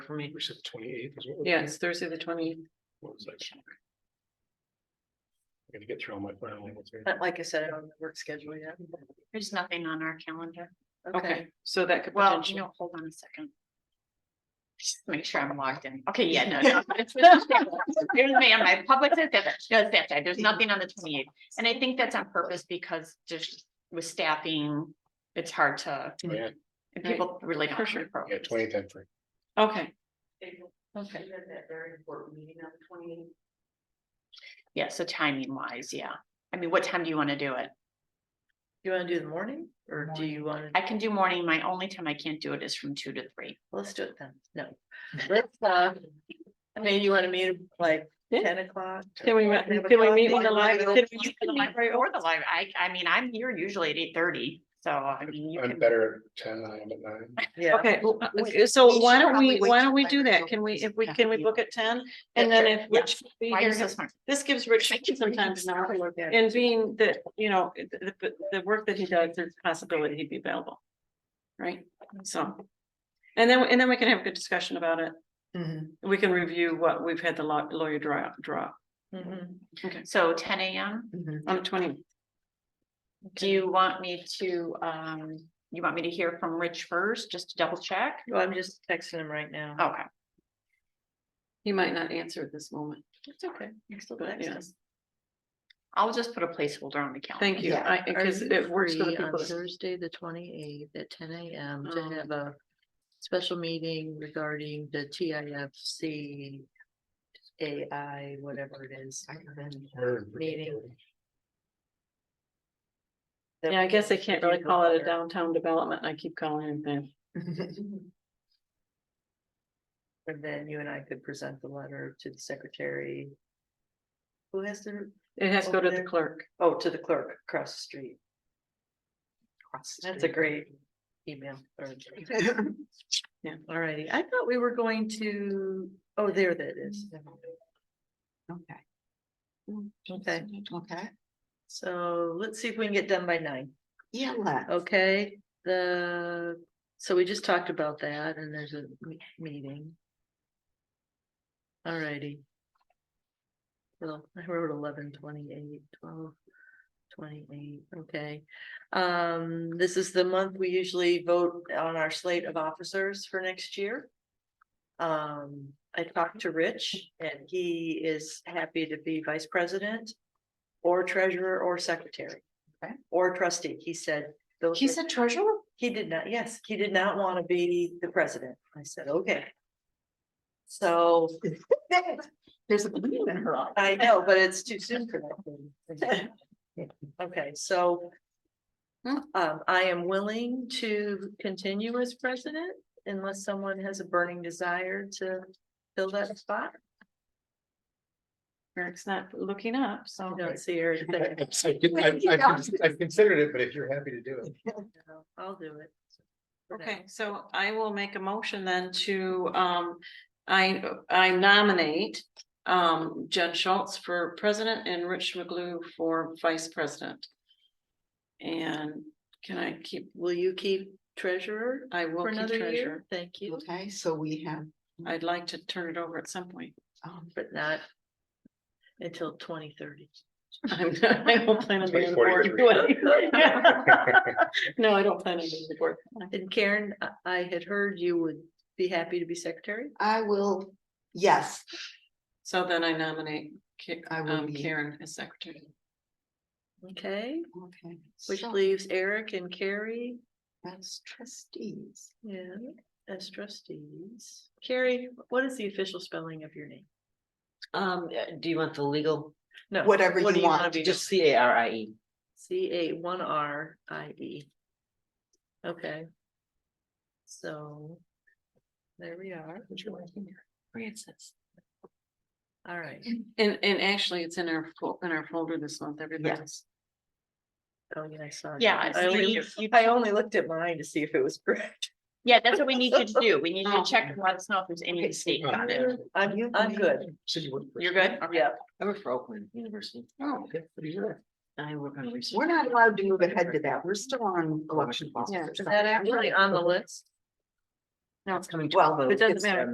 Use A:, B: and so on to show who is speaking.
A: for me.
B: We said twenty-eighth is what.
A: Yeah, it's Thursday, the twenty.
B: One second. I gotta get through all my final ones here.
A: But like I said, I don't have the work schedule yet.
C: There's nothing on our calendar.
A: Okay, so that could
C: Well, you
A: potentially,
C: know, hold on a second. Just Make sure I'm logged in. Okay, yeah, no, no. it's- There's me on my public, system. no, that's right. There's nothing on the twenty eighth. And I think that's on purpose because just with staffing, it's hard to,
B: Oh, Yeah,
C: and people really don't.
A: For sure.
B: yeah, twenty-eighth, I'm free.
A: okay,
C: Okay.
D: that very important meeting on the twenty.
C: Yeah, so timing wise, yeah. I mean, what time do you want to do it?
D: You wanna do the morning or do you wanna,
C: I can do morning. My only time I can't do it is from two to three.
D: let's do it then, no. Let's, uh, I mean, you wanna meet at, like
A: Yeah.
D: ten o'clock?
A: can we,
D: Have a
A: can we meet
D: coffee?
A: in the library?
C: You can like Or the live, I, I mean, I'm here usually at eight thirty, so I mean, you
B: I'm
C: can,
B: better at ten than I am at nine.
D: Yeah.
A: Okay, well, uh,
C: We-
A: so
C: we
A: why
C: should
A: don't we,
C: probably wait
A: why
C: till
A: don't we do
C: later,
A: that?
C: so
A: Can we,
C: it's
A: if we,
C: not
A: can we
C: you.
A: book at ten? And then if Rich can be
C: why you're
A: here,
C: so smart.
A: this gives Rich some time to now. And being that, you know, the, the, the work that he does, there's a possibility he'd be available. Right, so. And then, and then we can have a good discussion about it.
D: Mhm,
A: We can review what we've had the law- lawyer draw, draw up
D: mhm,
C: So ten AM,
D: mhm.
A: on the twenty.
C: do you want me to, um, you want me to hear from Rich first, just to double check?
D: Well, I'm just texting him right now.
C: Okay.
A: He might not answer at this moment.
D: It's okay. You still
A: But, yeah.
D: access.
C: I'll just put a placeholder on the calendar.
A: Thank you,
D: Yeah.
A: I,
D: Are
A: because
D: you
A: it works for the
D: free on
A: people. that-
D: Thursday, the twenty eighth at ten AM to
A: Um,
D: have a special meeting regarding the TIFC. AI, whatever it is.
B: We're in pretty
D: Meeting.
B: early.
A: Yeah, I guess I can't really call it a downtown development, I keep calling it that.
D: And then you and I could present the letter to the secretary. Who has to,
A: It has to go to
D: Over
A: the
D: there.
A: clerk.
D: oh, to the clerk across the street.
C: Across the
D: That's a
C: street.
D: great email. or- Yeah, alrighty. I thought we were going to, oh, there that is. Okay,
E: Okay,
D: so let's see if we can get done by nine.
E: yeah, let.
D: Okay, the, so we just talked about that and there's a me- meeting. Alrighty. Well, I wrote eleven twenty-eight, twelve twenty-eight, okay. Um, this is the month we usually vote on our slate of officers for next year. Um, I talked to Rich and he is happy to be vice president or treasurer or secretary.
E: Okay.
D: Or trustee, he said. those
E: He
D: are-
E: said treasurer?
D: he did not, yes, he did not want to be the president. I said, okay. So
E: There's a belief in her. eye.
D: I know, but it's too soon for that. thing. Okay, so.
E: Hmm.
D: Um, I am willing to continue as president unless someone has a burning desire to fill that spot.
A: Eric's not looking up, so.
D: I don't see her. there.
B: I've- I've I've- I've considered it, but if you're happy to do it.
D: No, I'll do it. for now.
A: Okay, so I will make a motion then to, um, I, I nominate. Um, Jen Schultz for president and Rich McGlue for vice president. And can I keep,
D: Will you keep treasurer
A: I will
D: for
A: keep
D: another year?
A: treasurer.
D: Thank you,
E: Okay, so we have,
A: I'd like to turn it over at some point.
E: um,
D: but not until twenty thirty.
A: I'm, I don't plan on being on the board.
B: 2043.
A: No, I don't plan on being on the board.
D: And Karen, I- I had heard you would be happy to be secretary.
E: I will, yes,
A: So then I nominate Ka-
E: I will
A: um,
E: be-
A: Karen as secretary.
D: Okay,
E: okay.
D: which
E: so
D: leaves Eric and Carrie,
E: As trustees,
D: yeah, as trustees. Carrie, what is the official spelling of your name?
F: Um, uh, do you want the legal,
D: No.
E: whatever
D: what do
E: you
D: wanna
E: want,
D: be
F: just
D: known?
F: C A R I E?
D: C A one R I E. Okay. So. There we are.
F: Francis.
D: All right.
E: Mm.
A: And, and actually, it's in our, fol- in our folder this month, everybody's.
D: Oh, yeah, I saw. it.
C: Yeah, I
D: I
C: see
D: only-
C: you- you-
D: I only looked at mine to see if it was correct.
C: Yeah, that's what we need you to do. We need you
A: Oh.
C: to check and let us know if there's any mistake
B: Oh,
C: on it.
D: I'm, I'm good.
B: So you work for-
C: You're good? Okay.
D: Yeah.
F: I work for Oakland University.
B: Oh, okay, pretty good.
F: I work on research.
E: we're not allowed to move ahead to that, we're still on election.
F: Yeah.
E: officers.
D: Is that actually on the list?
F: Now it's coming.
E: Well,
F: Well,
D: it doesn't
F: it's,
D: matter.
F: um,